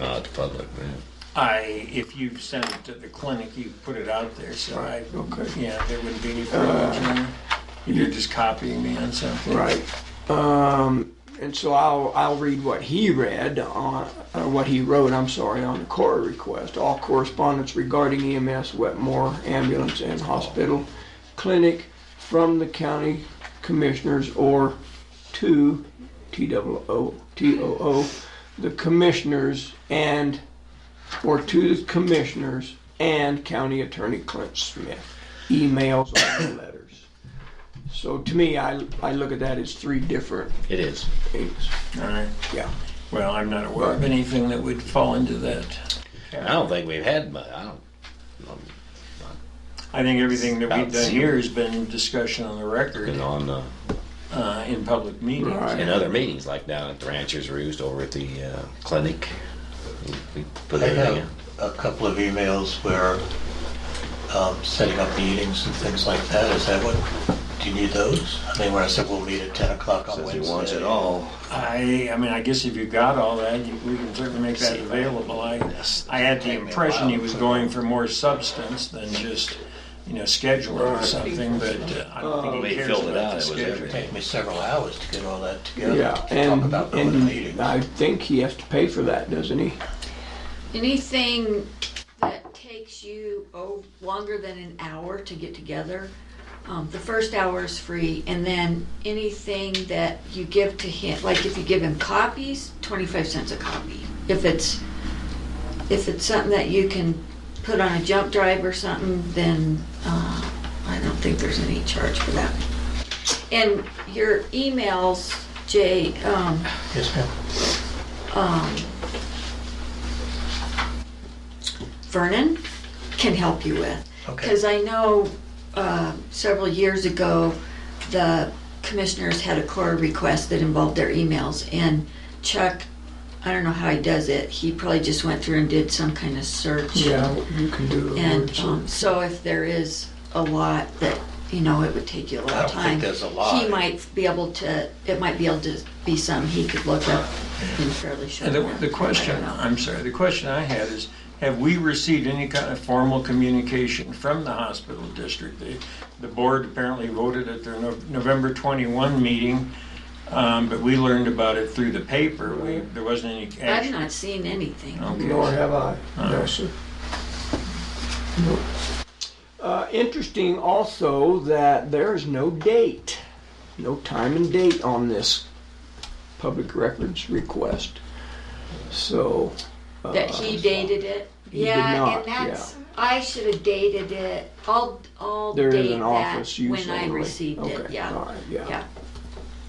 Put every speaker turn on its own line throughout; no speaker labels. Oh, the public, man.
I, if you send it to the clinic, you put it out there, so I,
Okay. Uh,
yeah, there wouldn't be any further adjournment. You're just copying me on something.
Right. Um, and so I'll, I'll read what he read on, uh, what he wrote, I'm sorry, on the core request. All correspondence regarding EMS, Wetmore Ambulance and Hospital Clinic from the county commissioners or to TOO, TOO, the commissioners and, or to the commissioners and county attorney Clint Smith. Emails or letters. So to me, I, I look at that as three different
It is.
things.
All right.
Yeah.
Well, I'm not aware of anything that would fall into that.
I don't think we've had, but I don't.
I think everything that we've
About
done
zero.
here has been discussion on the record,
Been on uh,
uh, in public meetings.
Right.
in other meetings, like down at the Ranchers Roost over at the uh, clinic. We put
I
everything
have
in.
a couple of emails where um, setting up meetings and things like that, is that what, do you need those? I mean, when I said we'll meet at 10 o'clock on
Says
Wednesday.
he wants it all.
I, I mean, I guess if you got all that, you- we can certainly make that
See, if I-
available. I,
Yes.
I had the
Take me a
impression
while
he
to
was
put
going for more substance than just, you know, scheduling or something, but uh, I don't think
They
he cares
filled it out,
about the
it was
schedule.
everything.
Take me several hours to get all that together.
Yeah,
to Talk
and,
about those meetings.
and I think he has to pay for that, doesn't he?
Anything that takes you oh, longer than an hour to get together, um, the first hour is free, and then anything that you give to him, like if you give him copies, twenty-five cents a copy. If it's, if it's something that you can put on a jump drive or something, then, uh, I don't think there's any charge for that. And your emails, Jay, um,
Yes, ma'am.
Vernon can help you with.
Okay.
Because I know uh, several years ago, the commissioners had a core request that involved their emails, and Chuck, I don't know how he does it, he probably just went through and did some kind of search.
you can do
And um, so if there is a lot that, you know, it would take you a lot
I
of
don't think
time.
there's a lot.
He might be able to, it might be able to be some he could look up in fairly short.
And the,
amount of
the
time. I
question,
don't know.
I'm sorry, the question I had is, have we received any kind of formal communication from the hospital district? The, the board apparently voted at their Nov- November 21 meeting, um, but we learned about it through the paper. We, there wasn't any
I've
action.
not seen anything.
Okay.
Nor have I. No, sir. No. Uh, interesting also that there is no date, no time and date on this public records request. So. uh,
That he dated it?
He did
Yeah,
not,
and that's, I should have dated it, I'll, I'll
There is
date
an
that
office use
when I
only.
received it,
Okay,
yeah,
all right, yeah.
yeah.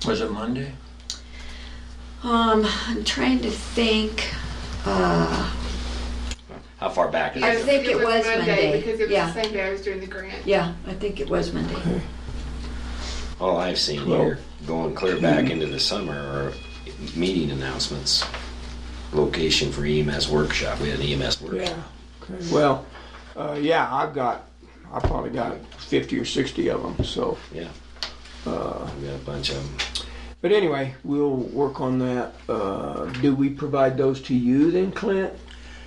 Was it Monday?
Uh,
Um, I'm trying to think, uh,
How far back is
I
it?
Yes,
think it was Monday.
Because it was
Yeah.
the same day I was doing the grant.
yeah, I think it was Monday.
All I've seen
Well-
here, going clear back into the summer, are meeting announcements. Location for EMS workshop. We had an EMS workshop.
Yeah. Okay. Well, uh, yeah, I've got, I probably got 50 or 60 of them, so.
Yeah. we got a bunch of them.
But anyway, we'll work on that. Uh, do we provide those to you then, Clint?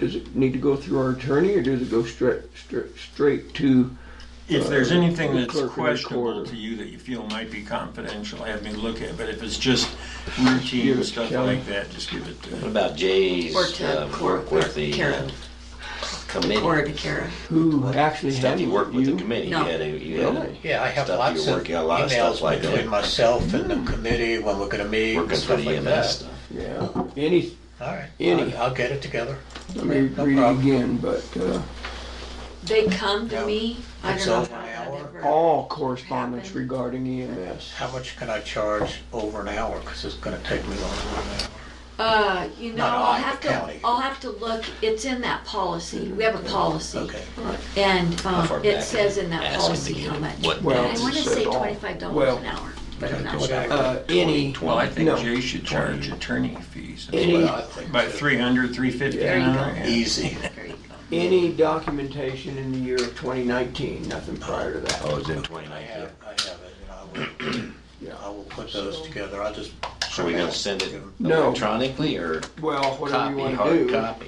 Does it need to go through our attorney or does it go straight, straight, straight to?
If there's anything
the
that's
clerk and
questionable
recorder.
to you that you feel might be confidential, have me look at it. But if it's just routine
Give it to
stuff
Kelly.
like that, just give it to
What about Jay's
Or to
uh,
Cor-
work with the
Kara.
uh, committee?
Or to Kara.
Who actually
Stuff you
handles
worked with the
you?
committee.
No.
You had a, you had a,
Really?
Yeah, I have
Stuff
lots
you
of
work out, a lot of stuff
emails
like that. Mm.
between myself and the committee when we're gonna meet
working
and
for
stuff
the
like
EMS
that.
stuff.
Yeah, any,
All right,
Any.
I'll- I'll get it together.
let me
No
read it
problem.
again, but, uh,
They come to
Yeah.
me, I
It's
don't know
over
how
an
that
hour.
ever,
all correspondence
Happened.
regarding E EMS.
How much can I charge over an hour? Because it's gonna take me longer than an hour.
uh, you know,
Not
I'll
I,
have
the
to,
county.
I'll have to look, it's in that policy, we have a policy.
Okay.
And
How far
um, it
back?
says in
Ask
that
them
policy
to get
how much.
what
Well,
I
it
want to
says
say
all.
twenty-five dollars
Well,
an hour, but I'm not sure.
Uh, any,
Well, I think
No.
Jay should charge attorney fees.
Any-
Well, I think
About
that-
300, 350 an
Yeah.
hour, yeah.
Easy.
There you go.
any documentation in the year of twenty nineteen, nothing prior to that.
Oh, it's in
I
2019.
have, I have it, and I will, I
Yeah.
will put those together, I'll just.
So we're gonna send it
No.
electronically or
Well, whatever you
copy,
wanna
hard
do.
copy?